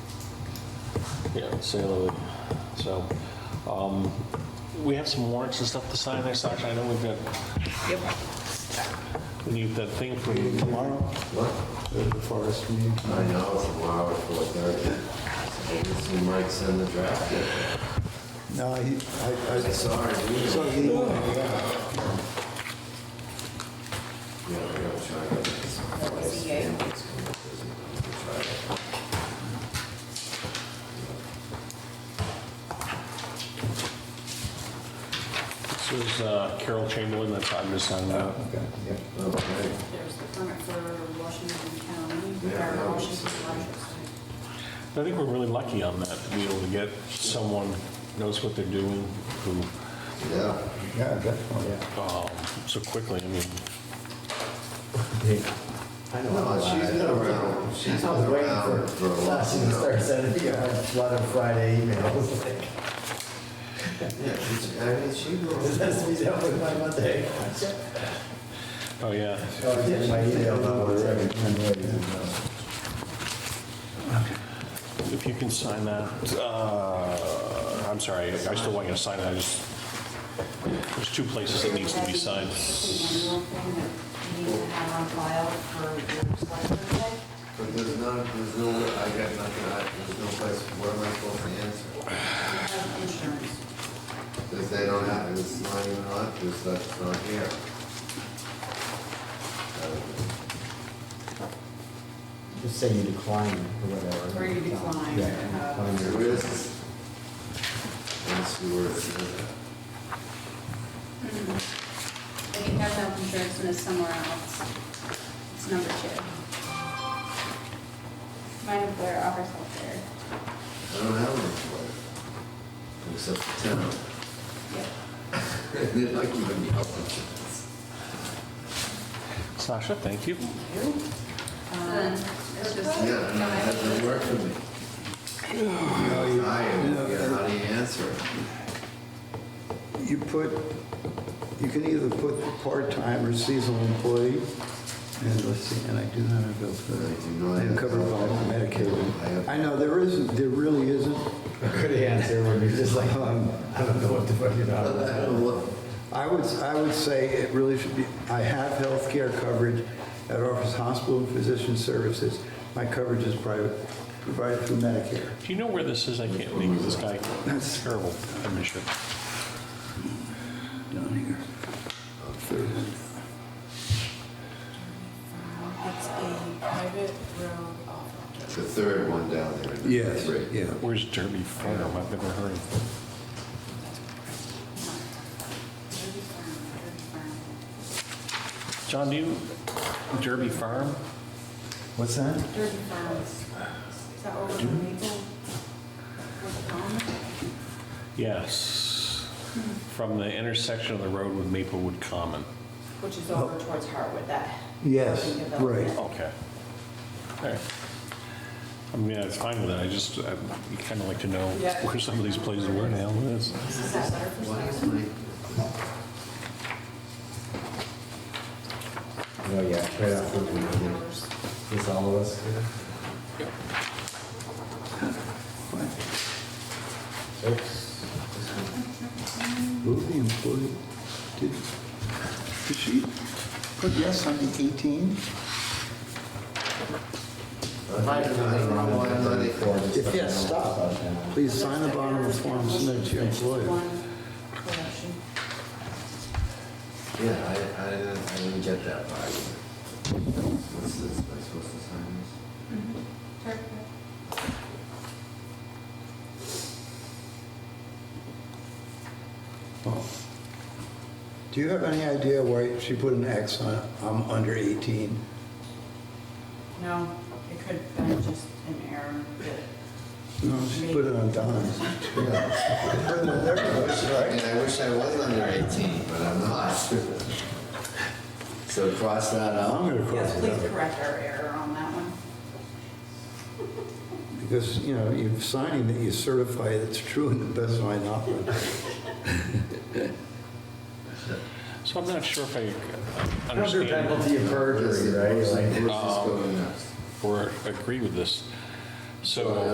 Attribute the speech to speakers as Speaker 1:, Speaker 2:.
Speaker 1: Yeah, sale of it. So, um, we have some warrants and stuff to sign there, Sasha. I know we've got,
Speaker 2: Yep.
Speaker 1: we need that thing for you.
Speaker 3: Tomorrow? What? The forest meeting.
Speaker 4: I know, it's a hour for thirty. You might send the draft. in.
Speaker 3: No, he,
Speaker 4: I
Speaker 3: I, I
Speaker 4: saw her
Speaker 3: saw
Speaker 4: email.
Speaker 3: the email, yeah.
Speaker 4: Yeah, we're gonna try to get this place.
Speaker 2: VA.
Speaker 4: It's gonna be busy. We'll try it.
Speaker 1: This is uh, Carol Chamberlain, that's, I'm just signing out.
Speaker 3: Okay, yeah.
Speaker 4: Okay.
Speaker 5: There's the permit for Washington County,
Speaker 4: Yeah, that
Speaker 5: or
Speaker 4: was-
Speaker 5: Washington Rochester.
Speaker 1: I think we're really lucky on that, to be able to get someone knows what they're doing, who,
Speaker 4: Yeah.
Speaker 3: Yeah, definitely.
Speaker 1: um, so quickly, I mean,
Speaker 6: I know.
Speaker 4: No, she's been around, she's been
Speaker 6: I was waiting
Speaker 4: around for a
Speaker 6: for uh,
Speaker 4: long
Speaker 6: Sasha to start
Speaker 4: time.
Speaker 6: sending you a lot of Friday emails. Like,
Speaker 4: Yeah, she's, I mean, she knows.
Speaker 6: This has to be done with by Monday.
Speaker 1: oh, yeah.
Speaker 6: Oh, I did my email about what's
Speaker 1: If you can sign that, uh, I'm sorry, I still want you to sign it, I just, there's two places that needs to be signed.
Speaker 5: It's an annual thing that you need to have on file for your selectmen's day.
Speaker 4: But there's no, there's no, I got nothing, I, there's no place, where am I supposed to answer?
Speaker 5: You have insurance.
Speaker 4: Because they don't have, it's not even on, because that's not here.
Speaker 6: Just say you decline or whatever.
Speaker 5: Or you decline.
Speaker 6: Yeah, decline your-
Speaker 4: There is, let's see where it's at.
Speaker 5: If you have health insurance and it's somewhere else, it's number two. Mine employer offers health care.
Speaker 4: I don't have any place, except the town.
Speaker 5: Yep.
Speaker 4: They're not giving me health insurance.
Speaker 1: Sasha, thank you.
Speaker 5: Um, It's just.
Speaker 4: Yeah, and it hasn't worked for me. You know, I, yeah, how do you answer it?
Speaker 3: You put, you can either put part-time or seasonal employee, and let's see, and I do not have those, but
Speaker 4: I do not
Speaker 3: I am covered by
Speaker 4: I have-
Speaker 3: Medicaid. I know, there isn't, there really isn't.
Speaker 6: A Good answer when you're just like, um, I don't know what to put, you
Speaker 4: I
Speaker 6: know.
Speaker 4: don't know.
Speaker 3: I would, I would say it really should be, I have health care coverage at Office Hospital and Physician Services. My coverage is private, provided through Medicare.
Speaker 1: Do you know where this is? I can't think of this guy. That's terrible. I miss you.
Speaker 3: Down here.
Speaker 5: It's a private road off.
Speaker 4: The third one down there. number
Speaker 3: Yes,
Speaker 4: three.
Speaker 3: yeah.
Speaker 1: Where's Derby Farm? I've never heard of it.
Speaker 5: Derby Farm, Derby Farm.
Speaker 1: John, do you, Derby Farm?
Speaker 6: What's that?
Speaker 5: Derby Farms. Is that over in Maple? What's it called?
Speaker 1: Yes. From the intersection of the road with Maplewood Common.
Speaker 5: Which is over towards Hartwood, that.
Speaker 3: Yes,
Speaker 5: housing development.
Speaker 3: right.
Speaker 1: Okay. All right. I mean, it's fine with that. I just, I kind of like to know
Speaker 5: Yeah.
Speaker 1: where some of these places were now. That's-
Speaker 5: This is that letter for
Speaker 4: Why is
Speaker 5: sale.
Speaker 4: my,
Speaker 6: Oh, yeah, right off the
Speaker 5: Seven
Speaker 6: weekend.
Speaker 5: hours.
Speaker 6: Is all of us here? Oops.
Speaker 3: Who the employee, did, did she put yes on the 18?
Speaker 4: I don't know why I'm not equal.
Speaker 3: If yes, stop. Please sign the bottom of the form submitted to your employer.
Speaker 5: One collection.
Speaker 4: Yeah, I, I didn't, I didn't get that part. What's this, am I supposed to sign this?
Speaker 3: Oh. Do you have any idea why she put an X on, it? I'm under 18?
Speaker 5: No, it could have been just an error.
Speaker 3: No, she put it on Don's.
Speaker 4: I wish, I mean, I wish I was under eighteen, but I'm not. So cross that out.
Speaker 3: I'm gonna cross
Speaker 5: Yes,
Speaker 3: it
Speaker 5: please
Speaker 3: out.
Speaker 5: correct our error on that one.
Speaker 3: Because, you know, you're signing that you certify it's true in the best of my knowledge.
Speaker 1: So I'm not sure if I
Speaker 6: Under
Speaker 1: understand
Speaker 6: penalty of
Speaker 4: Where's
Speaker 6: perjury,
Speaker 4: the-
Speaker 6: right?
Speaker 4: Where's
Speaker 6: Like,
Speaker 4: this going next?
Speaker 1: or agree with this. So.